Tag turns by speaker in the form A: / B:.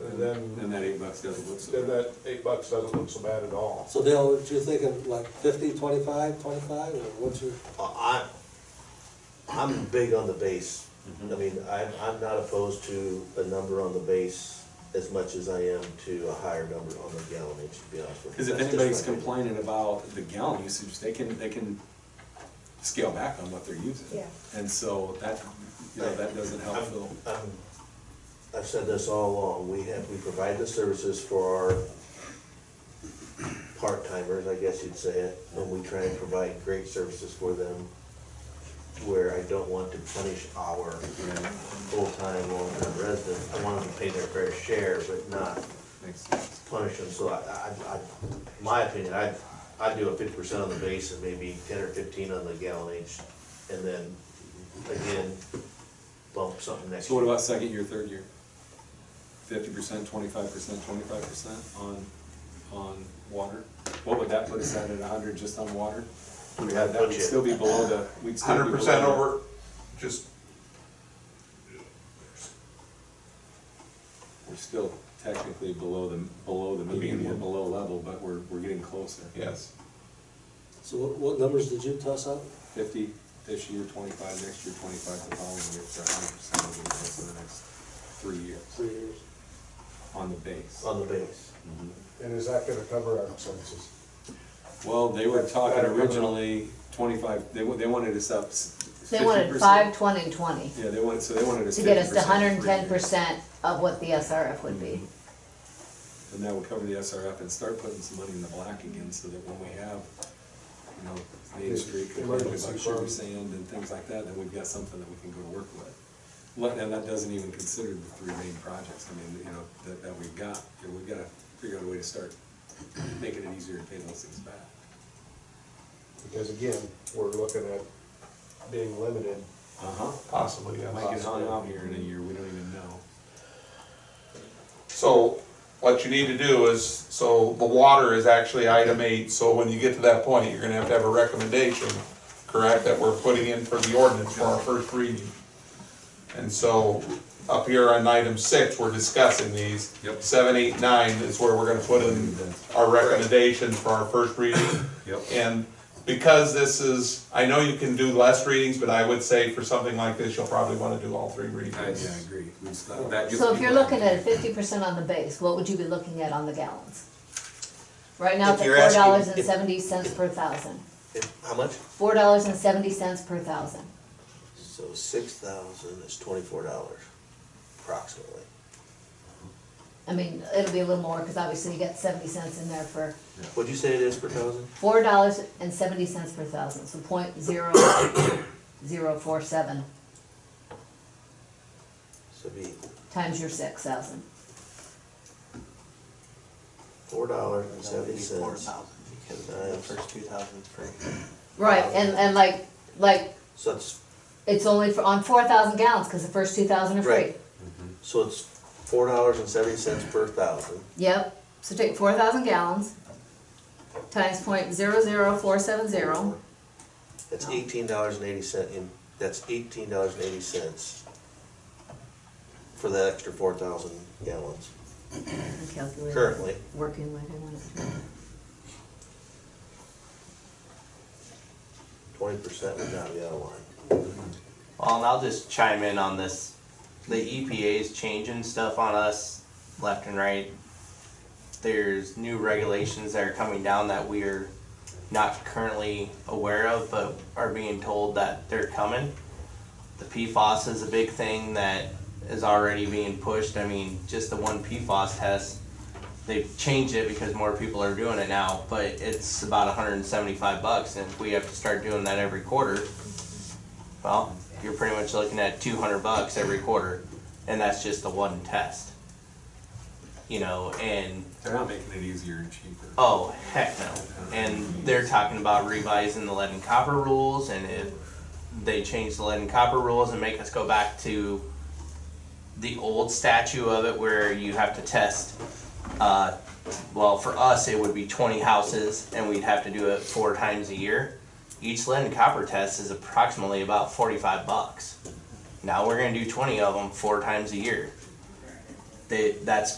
A: and then,
B: And that eight bucks doesn't look so
A: then
B: bad.
A: that eight bucks doesn't look so bad at all.
C: So Dale, what you thinking, like fifty, twenty-five, twenty-five, or what's your,
D: I, I'm big on the base. I mean, I'm, I'm not opposed to a number on the base as much as I am to a higher number on the gallonage, to be honest with you.
B: Cause if
D: That's just
B: anybody's
D: my opinion.
B: complaining about the gallon usage, they can, they can scale back on what they're using.
E: Yeah.
B: And so that, you know, that doesn't help
D: I'm-
B: Phil.
D: I'm- Um, I've said this all along, we have, we provide the services for our part-timers, I guess you'd say it, and we try and provide great services for them where I don't want to punish our full-time, long-term residents. I want them to pay their fair share, but not
B: Makes sense.
D: punish them, so I, I, I, in my opinion, I, I'd do a fifty percent on the base and maybe ten or fifteen on the gallonage, and then, again, bump something next
B: So what
D: year.
B: about second year, third year? Fifty percent, twenty-five percent, twenty-five percent on, on water? What would that put us at, at a hundred just on water? We had that, we'd
D: Budget.
B: still be below the, we'd still be
A: Hundred
B: below
A: percent
B: the-
A: over, just,
B: We're still technically below the, below the median, we're below level, but we're, we're getting closer.
A: yes,
C: so what, what numbers did you toss out?
B: Fifty this year, twenty-five next year, twenty-five the following year, for hundred percent over the course of the next three years
C: Three years.
B: on the base.
D: On the base.
F: And is that gonna cover our expenses?
B: Well, they were
F: That's gotta
B: talking
F: cover-
B: originally twenty-five, they, wa- they wanted us up fifty
E: They
B: percent.
E: wanted five, twenty, and twenty,
B: Yeah, they wanted, so they wanted us
E: to
B: fifty
E: get
B: percent.
E: us to hundred and ten percent of what the SRF would
B: Mm-hmm.
E: be.
B: And that would cover the SRF and start putting some money in the black again, so that when we have, you know, Main Street complaining
F: Emergency
B: about sugar
F: fund.
B: sand and things like that, then we've got something that we can go to work with. Let- And that doesn't even consider the three main projects, I mean, you know, that, that we've got, You know, we've gotta figure out a way to start making it easier to pay those things back.
F: Because again, we're looking at being limited.
B: Uh-huh.
A: possibly, yes.
B: Might get hung out here in a year, we don't even know.
A: So what you need to do is, so the water is actually item eight, so when you get to that point, you're gonna have to have a recommendation, correct, that we're putting in for the ordinance for our first reading. And so up here on item six, we're discussing these.
B: Yep.
A: Seven, eight, nine is where we're gonna put in our recommendations for our first reading.
B: Yep.
A: And because this is, I know you can do less readings, but I would say for something like this, you'll probably wanna do all three readings.
B: I, yeah, I agree. We just- that- that gives
E: So if you're
B: people-
E: looking at fifty percent on the base, what would you be looking at on the gallons? Right now,
D: If
E: it's at
D: you're
E: four
D: asking-
E: dollars and
D: if-
E: seventy cents per thousand.
D: If- How much?
E: Four dollars and seventy cents per thousand.
D: So six thousand is twenty-four dollars approximately.
E: I mean, it'll be a little more, cause obviously you got seventy cents in there for
D: What'd you say it is per thousand?
E: four dollars and seventy cents per thousand, so point zero, zero four seven
D: So it'd be
E: times your six thousand.
D: four dollars and seventy
G: Four
D: cents.
G: thousand, because the uh, first two thousand's free.
E: Right, and, and like, like,
D: So it's,
E: it's only for, on four thousand gallons, cause the first two thousand are free.
D: Right. so it's four dollars and seventy cents per thousand.
E: Yep, so take four thousand gallons, times point zero zero four seven zero,
D: That's
E: No.
D: eighteen dollars and eighty cent, in that's eighteen dollars and eighty cents for that extra four thousand gallons
E: I'm calculating.
D: currently.
E: Working with, I want it.
D: Twenty percent would not be out of line.
G: Well, and Um, I'll just chime in on this. The E EPA's changing stuff on us left and right. There's new regulations that are coming down that we're not currently aware of, but are being told that they're coming. The PFOS is a big thing that is already being pushed. I mean, just the one PFOS test, they've changed it because more people are doing it now, but it's about 175 bucks, and if we have to start doing that every quarter, well, you're pretty much looking at two hundred bucks every quarter, and that's just the one test. You know, and
B: They're not making it easier and cheaper.
G: oh heck no! And they're talking about revising the lead and copper rules, and if they change the lead and copper rules and make us go back to the old statute of it, where you have to test. Uh, well, for us, it would be twenty houses, and we'd have to do it four times a year. Each lead and copper test is approximately about forty-five bucks. Now we're gonna do twenty of them four times a year. They, that's